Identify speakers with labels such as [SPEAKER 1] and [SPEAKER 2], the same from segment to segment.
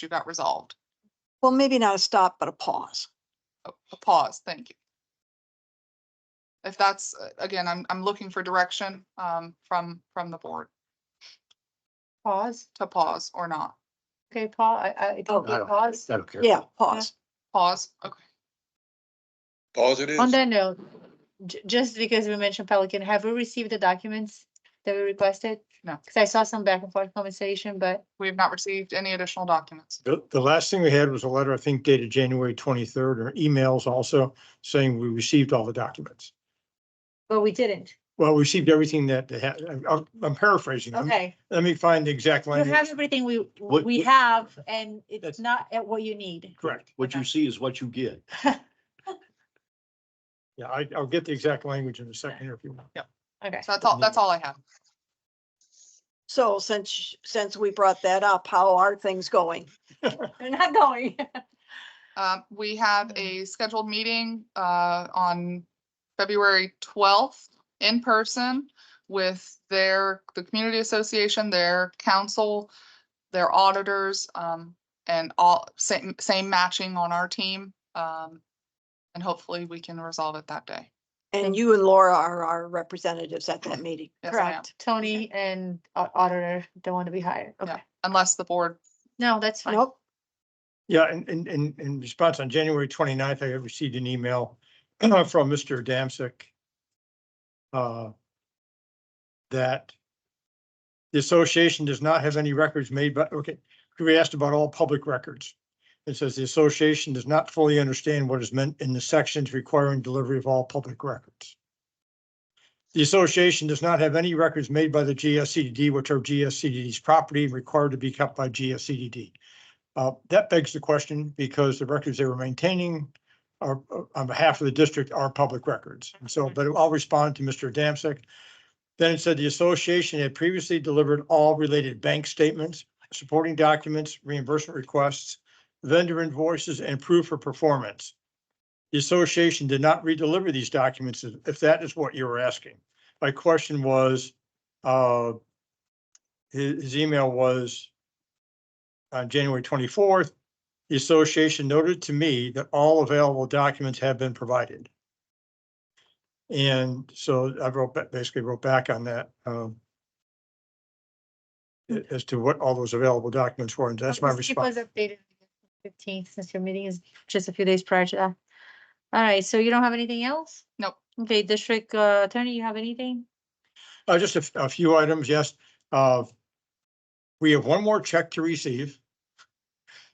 [SPEAKER 1] issue got resolved.
[SPEAKER 2] Well, maybe not a stop, but a pause.
[SPEAKER 1] A a pause, thank you. If that's, uh, again, I'm, I'm looking for direction, um, from, from the board
[SPEAKER 3] Pause.
[SPEAKER 1] to pause or not.
[SPEAKER 3] Okay, Paul, I, I- I
[SPEAKER 2] Oh.
[SPEAKER 3] don't get pause.
[SPEAKER 4] I don't care.
[SPEAKER 2] Yeah, pause.
[SPEAKER 1] Pause, okay.
[SPEAKER 5] Pause it is.
[SPEAKER 3] On that note, ju- just because we mentioned Pelican, have we received the documents that we requested?
[SPEAKER 1] No.
[SPEAKER 3] Cause I saw some back and forth conversation, but
[SPEAKER 1] We have not received any additional documents.
[SPEAKER 4] The, the last thing we had was a letter, I think dated January twenty-third, or emails also saying we received all the documents.
[SPEAKER 3] but we didn't.
[SPEAKER 4] Well, we received everything that they had. I'm- I'm- I'm paraphrasing. I'm-
[SPEAKER 3] Okay,
[SPEAKER 4] Let me find the exact
[SPEAKER 3] you have
[SPEAKER 4] language.
[SPEAKER 3] everything we,
[SPEAKER 6] What-
[SPEAKER 3] we
[SPEAKER 6] what-
[SPEAKER 3] have and it's
[SPEAKER 4] That's-
[SPEAKER 3] not at what you need.
[SPEAKER 4] Correct.
[SPEAKER 6] What you
[SPEAKER 3] Okay.
[SPEAKER 6] see is what you get.
[SPEAKER 4] Yeah, I, I'll get the exact language in a second here if you want. Yeah.
[SPEAKER 3] Okay.
[SPEAKER 1] So that's all, that's all I have.
[SPEAKER 2] So since, since we brought that up, how are things going?
[SPEAKER 3] They're not going.
[SPEAKER 1] Um, we have a scheduled meeting, uh, on February twelfth in person with their, the community association, their council, their auditors, um, and all, same, same matching on our team. Um, and hopefully we can resolve it that day.
[SPEAKER 2] And you and Laura are our representatives at that meeting.
[SPEAKER 1] Yes, ma'am.
[SPEAKER 3] Tony and au- auditor don't want to be hired.
[SPEAKER 1] Yeah.
[SPEAKER 3] Okay,
[SPEAKER 1] Unless the board,
[SPEAKER 3] no, that's fine.
[SPEAKER 2] Nope.
[SPEAKER 4] Yeah, and, and, and in response on January 29th, I had received an email from Mr. Damsick uh, that the association does not have any records made, but, okay, we asked about all public records. It says the association does not fully understand what is meant in the sections requiring delivery of all public records. The association does not have any records made by the GSCDD, which are GSCDD's property and required to be kept by GSCDD. Uh, that begs the question because the records they were maintaining are uh, on behalf of the district are public records. And so, but I'll respond to Mr. Damsick. Then it said the association had previously delivered all related bank statements, supporting documents, reimbursement requests, vendor invoices and proof for performance. The association did not redeliver these documents, if- if that is what you were asking. My question was, uh, his, his email was, on January twenty-fourth, the association noted to me that all available documents have been provided. And so I wrote, ba- basically wrote back on that, um, a- as to what all those available documents were, and that's my
[SPEAKER 3] Just keep us
[SPEAKER 4] response.
[SPEAKER 3] updated Fifteenth, since your meeting is just a few days prior to that. All right, so you don't have anything else?
[SPEAKER 1] Nope.
[SPEAKER 3] Okay, district uh, attorney, you have anything?
[SPEAKER 4] Uh, just a, f- a few items, yes. Uh, we have one more check to receive.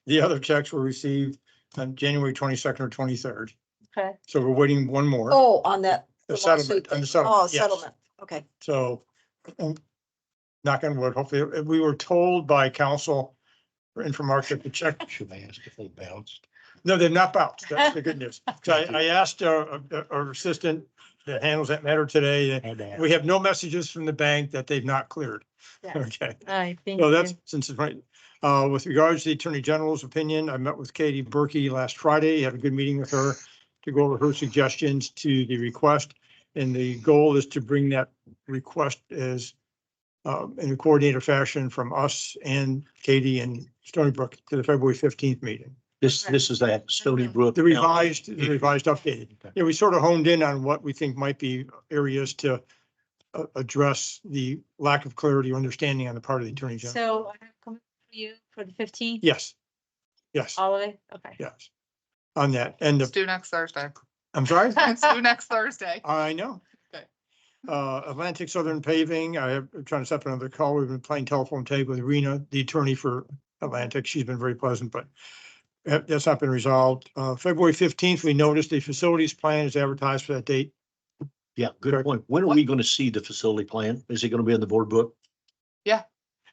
[SPEAKER 4] The other checks were received on January twenty-second or twenty-third,
[SPEAKER 3] Okay,
[SPEAKER 4] so we're waiting one more.
[SPEAKER 2] Oh, on that.
[SPEAKER 4] The
[SPEAKER 2] the
[SPEAKER 4] settlement,
[SPEAKER 2] lawsuit
[SPEAKER 4] on the
[SPEAKER 2] thing.
[SPEAKER 4] settlement,
[SPEAKER 2] Oh,
[SPEAKER 4] yes.
[SPEAKER 2] settlement. Okay.
[SPEAKER 4] So um, knock on wood, hopefully, uh, we were told by council and from our to check,
[SPEAKER 6] Should I ask if they bounced?
[SPEAKER 4] no, they've not bounced. That's the good news. So I, I asked our, our- our assistant that handles that matter today. and
[SPEAKER 6] Had to ask.
[SPEAKER 4] We have no messages from the bank that they've not cleared.
[SPEAKER 3] Yeah.
[SPEAKER 4] Okay.
[SPEAKER 3] all right, thank
[SPEAKER 4] No,
[SPEAKER 3] you.
[SPEAKER 4] that's, since it's right, uh, with regards to the Attorney General's opinion, I met with Katie Berkey last Friday, had a good meeting with her to go over her suggestions to the request, and the goal is to bring that request as um, in a coordinated fashion from us and Katie and Stony Brook to the February fifteenth meeting.
[SPEAKER 6] This, this is that Stony Brook.
[SPEAKER 4] The revised, the revised updated.
[SPEAKER 6] Okay.
[SPEAKER 4] Yeah, we sort of honed in on what we think might be areas to uh, address the lack of clarity or understanding on the part of the Attorney General.
[SPEAKER 3] So I have coming for you for the fifteenth,
[SPEAKER 4] Yes. Yes.
[SPEAKER 1] Um,
[SPEAKER 3] all of it, okay.
[SPEAKER 4] Yes, on that end
[SPEAKER 1] it's
[SPEAKER 4] of,
[SPEAKER 1] due next Thursday.
[SPEAKER 4] I'm sorry,
[SPEAKER 1] It's due next Thursday.
[SPEAKER 4] I know.
[SPEAKER 1] Okay.
[SPEAKER 4] Uh, Atlantic Southern Paving, I have, I'm trying to set up another call. We've been playing telephone tag with Rena, the attorney for Atlantic. She's been very pleasant, but that- that's not been resolved. Uh, February fifteenth, we noticed the facilities plan is advertised for that date.
[SPEAKER 6] Yeah, good point. When are we going to see the facility plan? Is it going to be in the board book?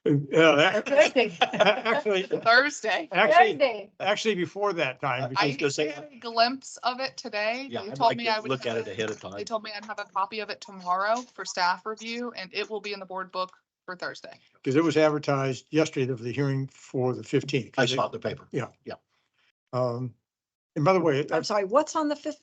[SPEAKER 4] Uh, ac-
[SPEAKER 3] Thursday.
[SPEAKER 4] Actually,
[SPEAKER 1] Thursday.
[SPEAKER 4] actually,
[SPEAKER 3] Thursday.
[SPEAKER 4] actually before that time.
[SPEAKER 1] I
[SPEAKER 4] because
[SPEAKER 6] was gonna say-
[SPEAKER 1] had a glimpse of it today.
[SPEAKER 6] Yeah,
[SPEAKER 1] They
[SPEAKER 6] I'd
[SPEAKER 1] told
[SPEAKER 6] like
[SPEAKER 1] me
[SPEAKER 6] to
[SPEAKER 1] I would
[SPEAKER 6] look at
[SPEAKER 1] have
[SPEAKER 6] it ahead of time.
[SPEAKER 1] They told me I'd have a copy of it tomorrow for staff review and it will be in the board book for Thursday.
[SPEAKER 4] Because it was advertised yesterday of the hearing for the fifteenth.
[SPEAKER 6] I saw it in the paper.
[SPEAKER 4] Um, And by the way,
[SPEAKER 2] I'm
[SPEAKER 4] that's,
[SPEAKER 2] sorry, what's on the fifteenth?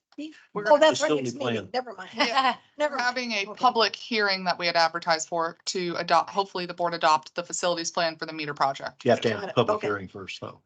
[SPEAKER 1] We're
[SPEAKER 2] Oh, that's right,
[SPEAKER 6] Facility
[SPEAKER 2] next meeting,
[SPEAKER 6] plan.
[SPEAKER 2] never mind,
[SPEAKER 1] Yeah.
[SPEAKER 2] never
[SPEAKER 1] We're
[SPEAKER 2] mind.
[SPEAKER 1] having a
[SPEAKER 2] Okay.
[SPEAKER 1] public hearing that we had advertised for to adopt, hopefully the board adopt the facilities plan for the meter project.
[SPEAKER 6] You have to
[SPEAKER 2] Got
[SPEAKER 6] have a
[SPEAKER 2] it.
[SPEAKER 6] public
[SPEAKER 2] Okay.
[SPEAKER 6] hearing first, though.